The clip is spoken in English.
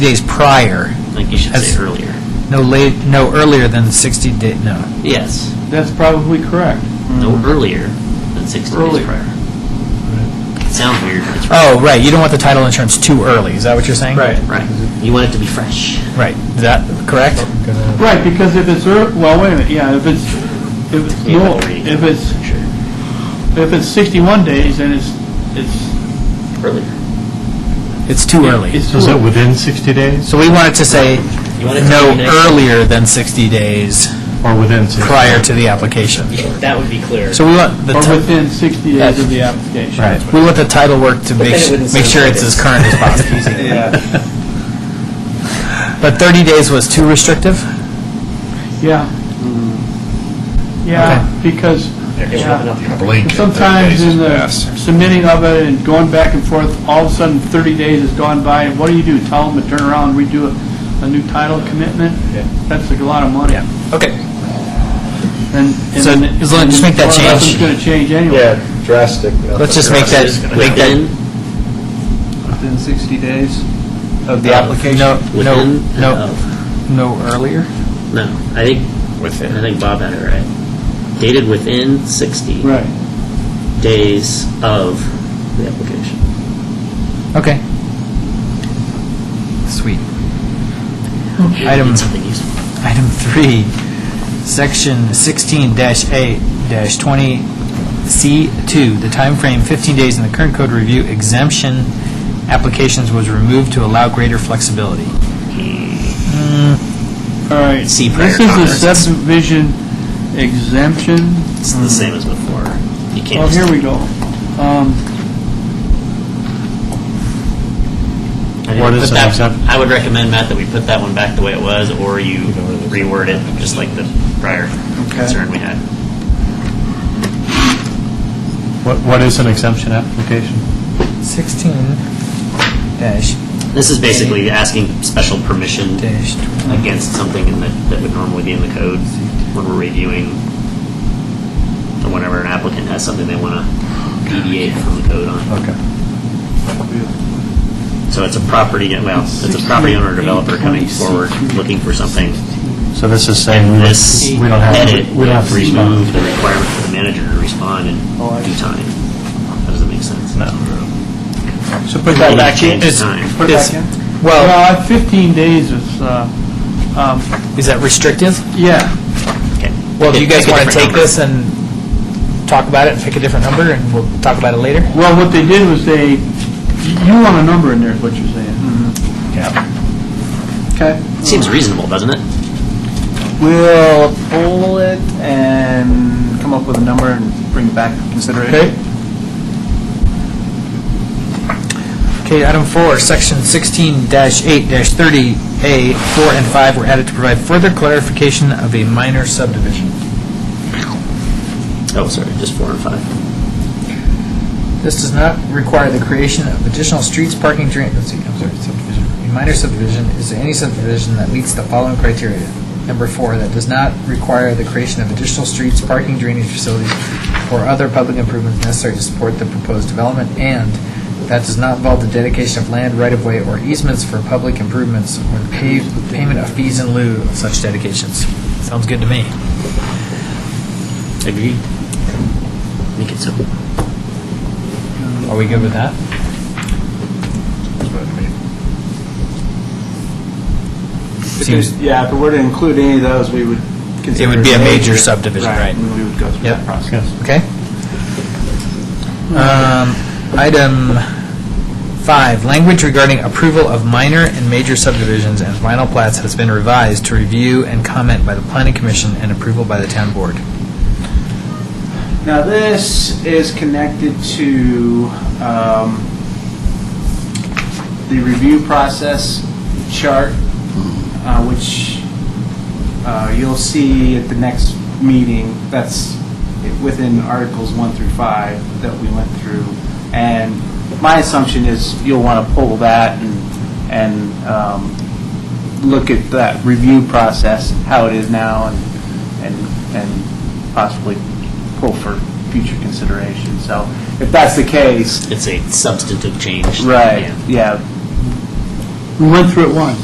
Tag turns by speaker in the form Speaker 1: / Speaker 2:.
Speaker 1: days prior,
Speaker 2: I think you should
Speaker 1: That's-
Speaker 2: say earlier.
Speaker 1: no late, no earlier than 60 day, no.
Speaker 2: Yes,
Speaker 3: That's probably correct.
Speaker 2: no earlier than 60 days
Speaker 3: Earlier.
Speaker 2: prior. It sounds weird, but it's right.
Speaker 1: Oh, right, you don't want the title insurance too early, is that what you're saying?
Speaker 2: Right. You want it to be fresh.
Speaker 1: Right, is that correct?
Speaker 3: Right, because if it's, ear- well, wait a minute, yeah, if it's, if it's,
Speaker 2: You
Speaker 3: no-
Speaker 2: have to read.
Speaker 3: if it's, if it's 61 days, then it's, it's.
Speaker 2: Earlier.
Speaker 1: It's too early.
Speaker 3: It's
Speaker 4: Is it
Speaker 3: too-
Speaker 4: within 60 days
Speaker 1: So we wanted to say
Speaker 2: You want it to
Speaker 1: no
Speaker 2: be next-
Speaker 1: earlier than 60 days
Speaker 4: or within 60?
Speaker 1: prior to the application.
Speaker 2: Yeah, That would be clear.
Speaker 1: So we want the,
Speaker 3: Or
Speaker 1: ti-
Speaker 3: within 60 days of the application.
Speaker 4: Right.
Speaker 1: we want the title work to make,
Speaker 2: then it
Speaker 1: su-
Speaker 2: wouldn't
Speaker 1: make
Speaker 2: sound
Speaker 1: sure
Speaker 2: like
Speaker 1: it's as
Speaker 2: it's-
Speaker 1: current as possible.
Speaker 3: Yeah.
Speaker 1: But 30 days was too restrictive?
Speaker 3: Yeah.
Speaker 1: Mm-hmm.
Speaker 3: Yeah, because
Speaker 2: There's
Speaker 3: yeah.
Speaker 2: not enough-
Speaker 5: blink. and thirty
Speaker 3: sometimes
Speaker 5: days
Speaker 3: in
Speaker 5: has
Speaker 3: the
Speaker 5: passed.
Speaker 3: submitting of it and going back and forth, all of a sudden 30 days has gone by, and what do you do? Tell them to turn around and redo a, a new title commitment? That's like a lot of money.
Speaker 1: Okay.
Speaker 3: And, and
Speaker 1: So,
Speaker 3: then-
Speaker 1: as long- just make that
Speaker 3: Well,
Speaker 1: change.
Speaker 3: Nothing's going to change anyway.
Speaker 6: Yeah, drastic.
Speaker 1: Let's just make that, make that
Speaker 2: Within,
Speaker 7: Within 60 days of
Speaker 1: the
Speaker 7: the
Speaker 1: application.
Speaker 7: application?
Speaker 1: No, no,
Speaker 2: within, uh, and
Speaker 1: no,
Speaker 2: of.
Speaker 1: no earlier?
Speaker 2: No, I think, I
Speaker 5: Within.
Speaker 2: think Bob had it right. Dated within 60
Speaker 3: Right.
Speaker 2: days of the application.
Speaker 1: Okay. Sweet.
Speaker 2: You
Speaker 1: Item-
Speaker 2: need Something useful.
Speaker 1: Item three, section sixteen A twenty C two, the time frame fifteen days in the current code review exemption applications was removed to allow greater flexibility.
Speaker 3: All right.
Speaker 2: See prior
Speaker 3: This is the
Speaker 2: comments.
Speaker 3: subdivision exemption.
Speaker 2: It's
Speaker 1: Hmm.
Speaker 2: the same as before. You can't
Speaker 3: Well,
Speaker 2: just-
Speaker 3: here we go. Um,
Speaker 2: I think
Speaker 4: What
Speaker 2: we
Speaker 4: is
Speaker 2: put
Speaker 4: an
Speaker 2: that-
Speaker 4: exempt-
Speaker 2: I would recommend, Matt, that we put that one back the way it was, or you reword it, just like the prior concern we had.
Speaker 4: What What is an exemption application?
Speaker 1: Sixteen dash
Speaker 2: This is basically asking special permission
Speaker 1: dash twenty.
Speaker 2: against something in the, that would normally be in the code when we're reviewing, or whenever an applicant has something they want to deviate from the code on.
Speaker 4: Okay.
Speaker 2: So it's a property, well, it's Oh, a property owner or developer coming forward, looking for something.
Speaker 4: So this is saying we
Speaker 2: And
Speaker 4: don't-
Speaker 2: this
Speaker 4: we don't have,
Speaker 2: edit
Speaker 4: we don't have to respond.
Speaker 2: removed the requirement for the manager to respond in due time. How does that make sense? No.
Speaker 3: So put
Speaker 2: that back in. Put
Speaker 3: it back in?
Speaker 1: Well,
Speaker 3: Well, 15 days is, uh, um,
Speaker 1: is that restrictive?
Speaker 3: yeah.
Speaker 2: Okay.
Speaker 1: Well, do you guys
Speaker 2: Pick a
Speaker 1: want to take
Speaker 2: different number.
Speaker 1: this and talk about it, pick a different number, and we'll talk about it later?
Speaker 3: Well, what they did was they, you want a number in there, is what you're saying.
Speaker 2: Mm-hmm.
Speaker 7: Okay.
Speaker 2: Seems reasonable, doesn't it?
Speaker 7: We'll pull it and come up with a number and bring it back for consideration.
Speaker 3: Okay.
Speaker 1: Okay, item four, section 16-8-30A, 4 and 5 were added to provide further clarification of a minor subdivision.
Speaker 2: Oh, sorry, just four and five.
Speaker 1: This does not require the creation of additional streets, parking, drain, let's see, I'm sorry, subdivision. A minor subdivision is any subdivision that meets the following criteria. Number four, that does not require the creation of additional streets, parking, drainage facilities, or other public improvements necessary to support the proposed development, and that does not involve the dedication of land, right-of-way, or easements for public improvements, or the pave- payment of fees in lieu of such dedications. Sounds good to me.
Speaker 2: Agreed. Make it simple.
Speaker 1: Are we good with that?
Speaker 7: If there's- Yeah, if it were to include any of those, we would consider.
Speaker 1: would be a
Speaker 7: it
Speaker 1: major subdivision, right.
Speaker 7: And we would go through
Speaker 1: Yep.
Speaker 7: that process.
Speaker 4: Yes.
Speaker 1: Okay. Um, Item five, language regarding approval of minor and major subdivisions and final plats has been revised to review and comment by the planning commission and approval by the town board.
Speaker 7: Now, this is connected to um, the review process chart, uh, which uh, you'll see at the next meeting. That's within Articles 1 through 5 that we went through. And my assumption is you'll want to pull that and, and um, look at that review process, how it is now, and, and, and possibly pull for future consideration. So if that's the case,
Speaker 2: It's a substantive change.
Speaker 7: right,
Speaker 2: Yeah.
Speaker 7: yeah, We went through it once.